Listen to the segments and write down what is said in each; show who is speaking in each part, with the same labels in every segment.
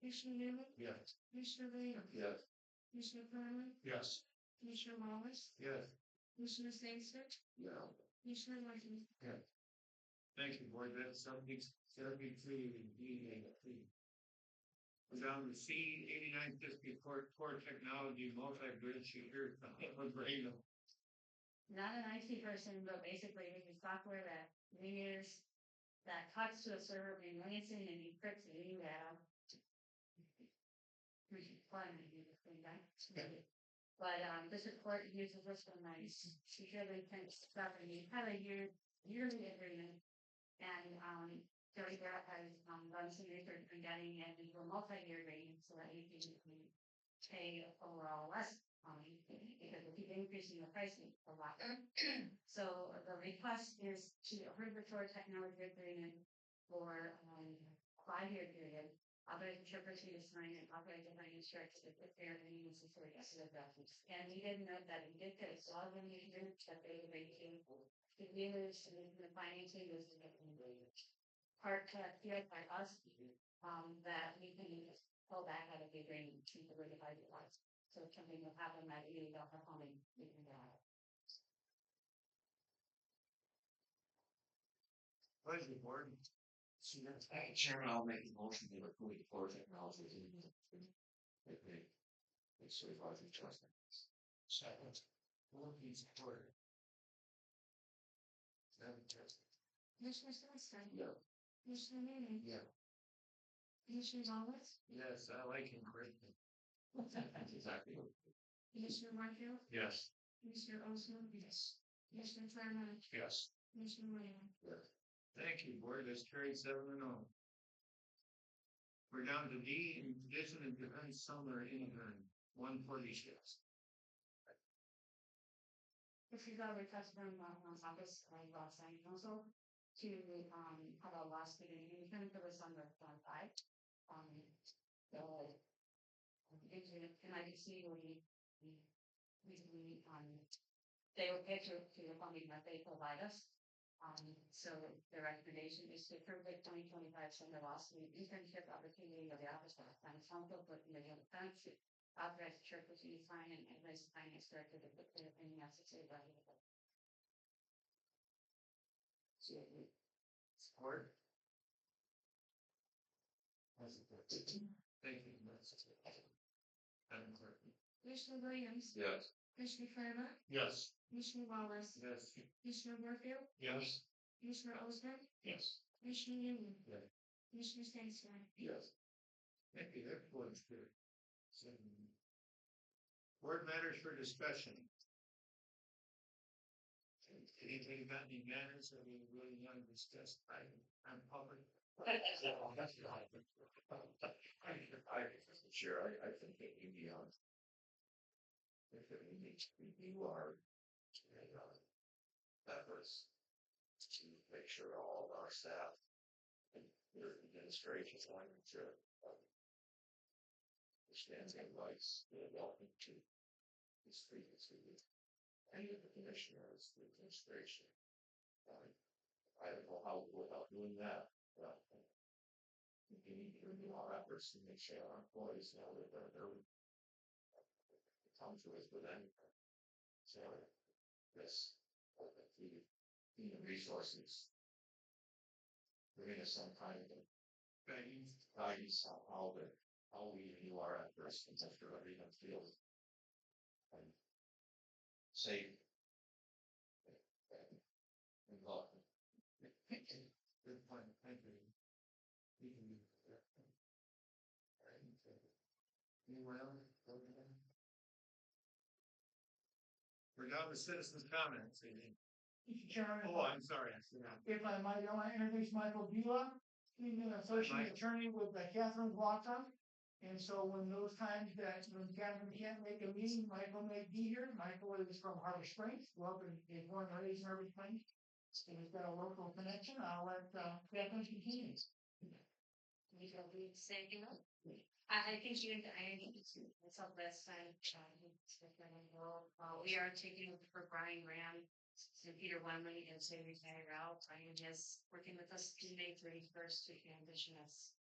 Speaker 1: Commissioner Newman,
Speaker 2: Yes.
Speaker 1: Commissioner Williams,
Speaker 2: Yes.
Speaker 1: Commissioner Conley,
Speaker 2: Yes.
Speaker 1: Commissioner Wallace,
Speaker 2: Yes.
Speaker 1: Commissioner Sangster,
Speaker 2: Yeah.
Speaker 1: Commissioner Martin,
Speaker 2: Thank you, Board, that's seventy, seventy-three, D A P. We're down to C eighty-nine fifty, core, core technology, multi-bridge, secure, brain.
Speaker 1: not an IT person, but basically making software that linears that talks to a server being Lansing and encrypts an email. We should plan to do this thing back to me. But um, this report uses this one nice securely fenced property, had a year, yearly agreement. And um, Joey Garrett has um, done some research on getting it into a multi-year agreement so that you can um, pay overall less money um, because we keep increasing the pricing a lot. So the request is to approve the tour technology agreement for um five-year period. Authorize the trooper to sign and authorize the finance director to prepare the needs and for the rest of the documents. And we did note that we did get a lot of engagement that they were making. The dealers and the financing was definitely part uh feel by us um that we can pull back out of the agreement to the rate of our departments. So if something will happen that you don't have money, we can get out.
Speaker 2: Pleasure, Board. Chairman, I'll make a motion to approve the core technology. Okay. It's so far from trust. Second. Four piece word. Seven, just.
Speaker 1: Commissioner Sunstein,
Speaker 2: Yeah.
Speaker 1: Commissioner Newman,
Speaker 2: Yeah.
Speaker 1: Commissioner Wallace,
Speaker 2: Yes, I like him greatly. Exactly.
Speaker 1: Commissioner Warfield,
Speaker 2: Yes.
Speaker 1: Commissioner Osmann, Commissioner Claremont,
Speaker 2: Yes.
Speaker 1: Commissioner Williams.
Speaker 2: Thank you, board. That's carried seven and oh. We're down to D, in addition and defense summer intern, uh, one forty shifts.
Speaker 1: This is our request from Martin's office, like last night, also to um have a last meeting, you can put this on the front side. Um, so. um, if you- And I can see we, we, we, we, um, they will get to, to the funding that they provide us. Um, so the recommendation is to approve the twenty twenty-five summer last week internship opportunity of the office of finance council, but in the country authorized church to sign and advise the finance director to put their opinion as to the value of it.
Speaker 2: Support. That's it. Thank you. That's it. Madam Clerk.
Speaker 1: Commissioner Williams,
Speaker 2: Yes.
Speaker 1: Commissioner Claremont,
Speaker 2: Yes.
Speaker 1: Commissioner Wallace,
Speaker 2: Yes.
Speaker 1: Commissioner Warfield,
Speaker 2: Yes.
Speaker 1: Commissioner Osmann,
Speaker 2: Yes.
Speaker 1: Commissioner Newman.
Speaker 2: Yeah.
Speaker 1: Commissioner Stansfield.
Speaker 2: Yes. Thank you, that point's good. So, Board matters for discussion. Anybody got any matters that we really want to discuss by, on public? Sure, I, I think that you be on. If it needs to be, you are. uh, Efforts to make sure all of our staff your administration wanted to. um, Understand and likes the welcome to this frequency with any of the commissioners, the administration. Um, I don't know how we'll go about doing that, but. um, We need to review our efforts to make sure our employees know that they're, they're. Come to us with anything. So, this, uh, the, the resources bring us some kind of guidance, guidance on how the, how we view our adverse things after every field. And safe. And love. Good point, thank you. We can do that. Alright, okay. Anyone else? Go ahead. We're down to citizens' comments, I think.
Speaker 3: Mr. Chairman,
Speaker 2: Oh, I'm sorry, I forgot.
Speaker 3: if I might, I want to introduce Michael Bula. He's an
Speaker 2: Michael.
Speaker 3: associate attorney with the Catherine Blocker. And so when those times that when Catherine can't make a meeting, Michael may be here. Michael is from Harbor Springs, welcome, is born and raised in Harbor Springs. And he's got a local connection. I'll let uh, Catherine continue.
Speaker 1: We don't need to say, you know. I, I think you, I think it's myself last time, um, speaking of, well, uh, we are taking over for Brian Graham. And Peter Wemley and Sammy Fanny Rao, Brian is working with us to May thirty first to transition us.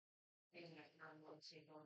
Speaker 1: In our normal table.